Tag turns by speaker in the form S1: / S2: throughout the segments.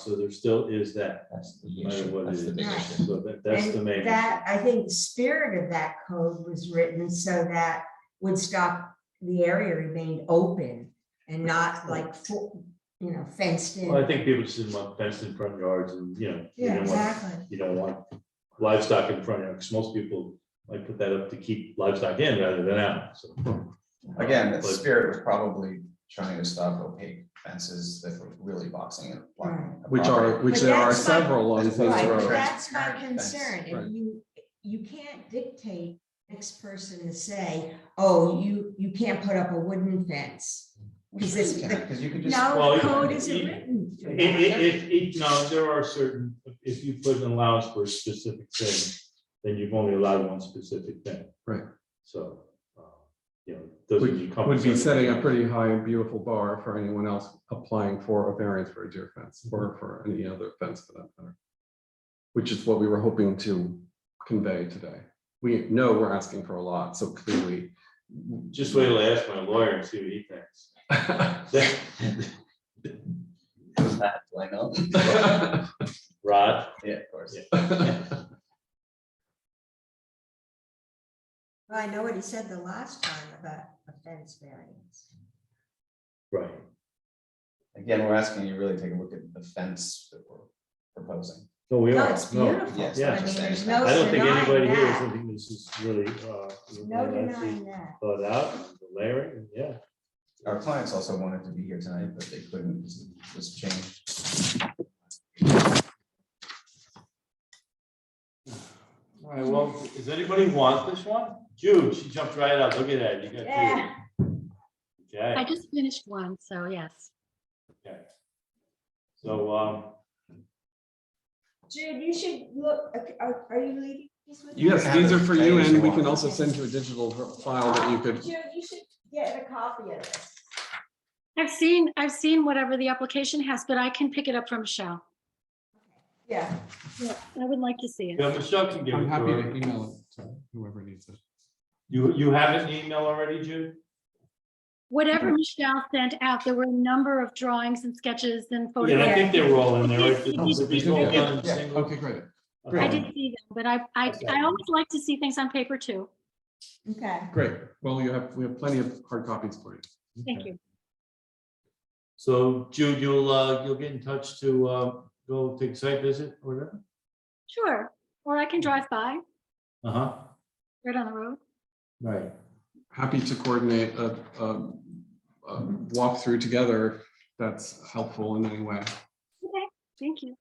S1: So there still is that,
S2: That's the
S1: no matter
S2: issue.
S1: what it
S2: That's the
S1: is.
S2: big
S3: Right.
S2: issue.
S1: So that, that's the
S3: And
S1: main.
S3: That, I think the spirit of that code was written so that Woodstock, the area remained open and not like, fo- you know, fenced in.
S1: Well, I think people just didn't want fenced in front yards and, you know. you
S3: Yeah,
S1: don't want-
S3: exactly.
S1: You don't want livestock in front of, because most people like put that up to keep livestock in rather than out, so.
S2: Again, the
S1: But-
S2: spirit was probably trying to stop opaque fences that were really boxing and blocking. a
S4: Which are,
S2: property.
S4: which
S3: But
S4: there are
S3: that's my-
S4: several on
S2: That's
S4: Queens
S2: my-
S3: Right, but
S4: Road.
S3: that's my
S2: Transparent fence,
S3: concern.
S4: right.
S3: If you, you can't dictate next person to say, oh, you, you can't put up a wooden fence.
S2: We
S3: Is this-
S2: really can't, because you could just.
S3: No,
S1: Well,
S3: the code
S1: it-
S3: isn't
S1: it-
S3: written. for
S1: It,
S3: that.
S1: it, it, it, no, there are certain, if you put an allowance for a specific thing, then you've only allowed one specific thing.
S4: Right.
S1: So, uh, you know, doesn't.
S4: Would be setting a pretty high and beautiful bar for anyone else applying for a variance for a deer fence or for any other fence for that matter. Which is what we were hoping to convey today. We know we're asking for a lot, so clearly.
S1: Just wait till I ask my lawyer and see what he thinks. That-
S2: That, do I know.
S1: Rod?
S2: Yeah, of course.
S1: Yeah.
S3: Well, I know what he said the last time about a fence variance.
S1: Right.
S2: Again, we're asking you really take a look at the fence that we're proposing.
S1: No, we
S3: No,
S1: are.
S3: it's
S1: No,
S3: beautiful.
S2: Yes.
S1: Yeah.
S3: I mean, there's no
S1: I don't think anybody
S3: denying
S1: here is
S3: that.
S1: thinking this is really, uh,
S3: No
S1: really
S3: denying that.
S1: thought out, the layering, yeah.
S2: Our clients also wanted to be here tonight, but they couldn't, because it was changed.
S1: All right, well, does anybody want this one? Jude, she jumped right out. Look at that. You got two.
S3: Yeah,
S1: Okay.
S5: I just finished one, so yes.
S1: So, um,
S3: Jude, you should look, are, are you leaving? these with me?
S4: Yes, these are for you and we can also send you a digital file that you could.
S3: Jude, you should get a copy of this.
S5: I've seen, I've seen whatever the application has, but I can pick it up from Michelle.
S3: Yeah.
S5: I would like to see it.
S1: yeah, Michelle can give it
S4: I'm
S1: to
S4: happy to
S1: her.
S4: email it to whoever needs it.
S1: You, you have it in email already, Jude?
S5: Whatever Michelle sent out, there were a number of drawings and sketches and
S1: Yeah, and I
S5: photographs.
S1: think they were all in there. right?
S5: Yeah.
S1: Did these all done in
S4: Yeah,
S1: single- Uh,
S4: okay, great.
S5: I
S1: Okay.
S5: did see them, but I, I, I always like to see things on paper too.
S3: Okay.
S4: Great. Well, you have, we have plenty of hard copies for you.
S5: Thank you.
S1: So Jude, you'll, uh, you'll get in touch to, uh, go take a site visit or whatever?
S5: Sure. Or I can drive by
S1: Uh-huh,
S5: right on the road.
S1: right.
S4: happy to coordinate a, a, a walkthrough together if that's helpful in any way.
S5: Okay, thank you.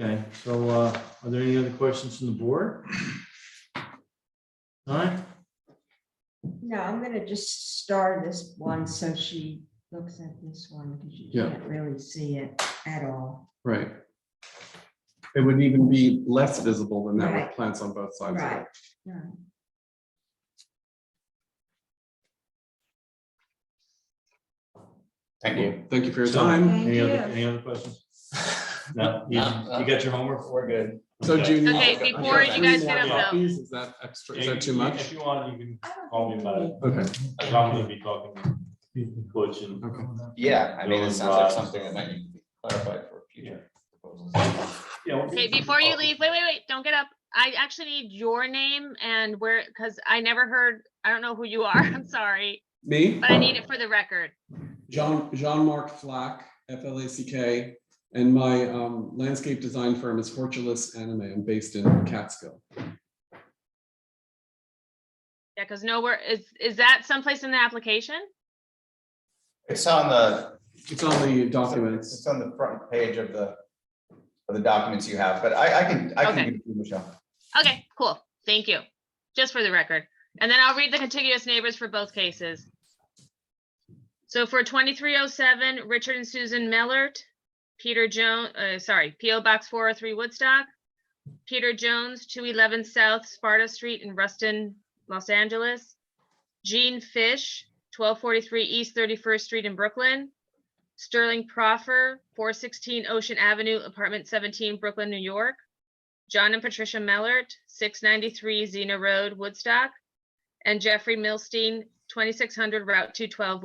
S1: Okay, so, uh, are there any other questions from the board? All right,
S3: No, I'm gonna just star this one so she looks at this one because you
S4: Yeah.
S3: can't really see it at all.
S4: Right. It would even be less visible than that
S3: Right.
S4: with plants on both sides. of
S3: Right.
S4: it.
S3: right.
S2: Thank you.
S4: Thank you for your
S1: So-
S4: time.
S3: Thank
S1: any other,
S3: you.
S1: any other questions? No, you,
S2: No.
S4: uh,
S1: you got your homework?
S2: We're good.
S4: So June.
S6: Okay,
S4: I've got- I've got
S6: before you
S4: three
S6: guys
S4: more
S1: get up, though.
S4: copies. Is that extra, is
S1: Yeah,
S4: that too
S1: you-
S4: much?
S1: If you want, you
S3: I don't
S1: can call me
S3: think
S1: about
S3: we
S1: it.
S4: Okay,
S1: I'm gonna be talking to Butch and
S4: okay.
S2: Yeah, I mean, it
S1: Those,
S2: sounds like
S1: uh,
S2: something that might need to be clarified for future proposals.
S1: Yeah, we'll-
S6: Okay, before you leave, wait, wait, wait, don't get up. I actually need your name and where, because I never heard, I don't know who you are, I'm sorry,
S4: Me,
S6: but I need it for the record.
S4: Jean, Jean-Marc Flack, F L A C K, and my um, landscape design firm is Fortulus Anime. I'm based in Catskill.
S6: Yeah, because nowhere, is, is that someplace in the application?
S2: It's on the,
S4: It's on the documents.
S2: it's on the front page of the, of the documents you have, but I, I can, I
S6: Okay.
S2: can give it to you, Michelle.
S6: Okay, cool, thank you, just for the record. And then I'll read the contiguous neighbors for both cases. So for twenty-three oh seven, Richard and Susan Mellert, Peter Jones, uh, sorry, PO Box four oh three Woodstock, Peter Jones, two eleven South Sparta Street in Ruston, Los Angeles, Gene Fish, twelve forty-three East Thirty-first Street in Brooklyn, Sterling Proffer, four sixteen Ocean Avenue, apartment seventeen, Brooklyn, New York, John and Patricia Mellert, six ninety-three Xena Road, Woodstock, and Jeffrey Milstein, 2600 Route 212